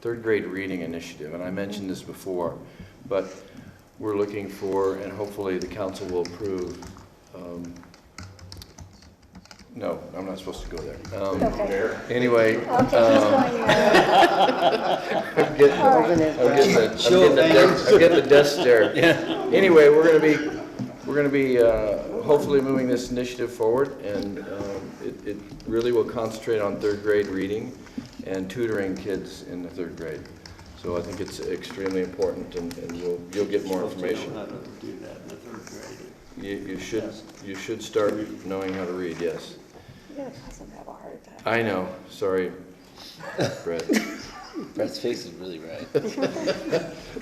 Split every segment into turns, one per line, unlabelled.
third grade reading initiative, and I mentioned this before, but we're looking for, and hopefully the council will approve, um, no, I'm not supposed to go there. Um,
Okay.
Anyway,
Okay, he's
um, I'm
going there.
getting,
All right.
I'm getting the, I'm getting the desk, I'm getting the desk stare. Anyway, we're gonna be, we're gonna be, uh, hopefully moving this initiative forward, and, um, it, it really will concentrate on third grade reading and tutoring kids in the third grade. So I think it's extremely important, and, and you'll, you'll get more information.
Supposed to know how to do that in the third grade.
You, you should, you should start knowing how to read, yes.
You're gonna cause him to have a heart attack.
I know, sorry, Brett.
Brett's face is really red.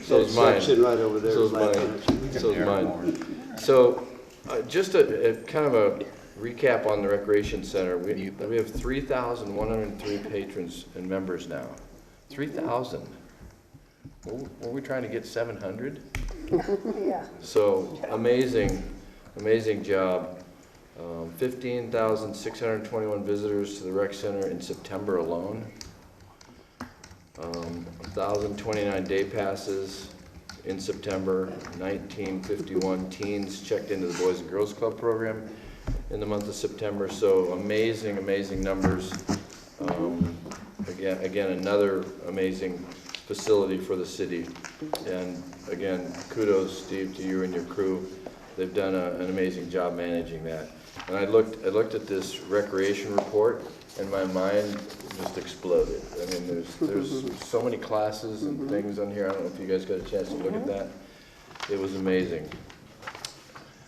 So is mine.
That section right over there.
So is
black
mine.
section.
So is mine. So, uh, just a, a kind of a recap on the recreation center. We, we have three thousand one hundred and three patrons and members now. Three thousand. Were we trying to get seven hundred?
Yeah.
So, amazing, amazing job. Um, fifteen thousand six hundred and twenty-one visitors to the rec center in September alone. Um, thousand twenty-nine day passes in September, nineteen fifty-one teens checked into the Boys and Girls Club program in the month of September, so amazing, amazing numbers. Um, Again, again, another amazing facility for the city. And again, kudos, Steve, to you and your crew. They've done a- an amazing job managing that. And I looked, I looked at this recreation report, and my mind just exploded. I mean, there's, there's so many classes and things on here, I don't know if you guys got a chance to look at that. It was amazing.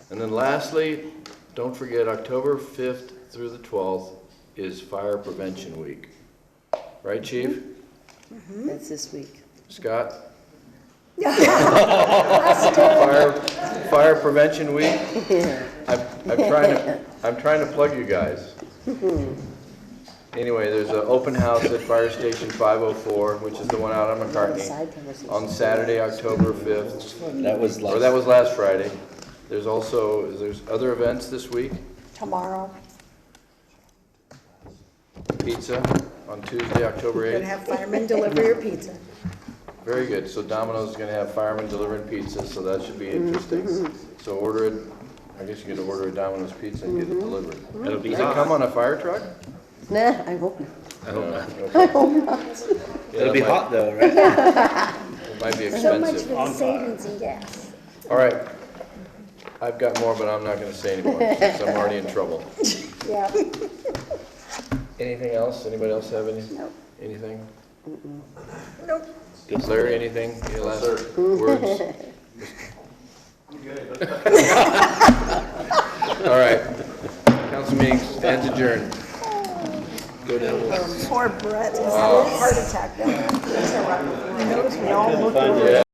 And then lastly, don't forget, October 5th through the 12th is Fire Prevention Week. Right, Chief?
That's this week.
Scott?
Buster,
Fire, Fire Prevention Week?
Yeah.
I'm, I'm trying to, I'm trying to plug you guys.
Mm-hmm.
Anyway, there's an open house at Fire Station 504, which is the one out on McCartney,
Side conversation.
on Saturday, October 5th.
That was
Or that
last,
was last Friday. There's also, there's other events this week.
Tomorrow.
Pizza on Tuesday, October 8th.
Gonna have firemen deliver your pizza.
Very good, so Domino's is gonna have firemen delivering pizza, so that should be interesting. So order it, I guess you could order a Domino's pizza and get it delivered.
It'll be
Does it come on a fire truck? Uh,
Nah, I hope not.
I hope not.
it'll be hot though, right?
It might be
So much for
expensive.
the savings in gas.
All right, I've got more, but I'm not gonna say anymore, because I'm already in trouble.
Yeah.
Anything else, anybody else have any?
Nope.
Anything?
Nope.
Larry, anything? Any last words? All right, council meeting stands adjourned.
Poor Brett, he's having a heart attack. Interrupt. I noticed we all looked over.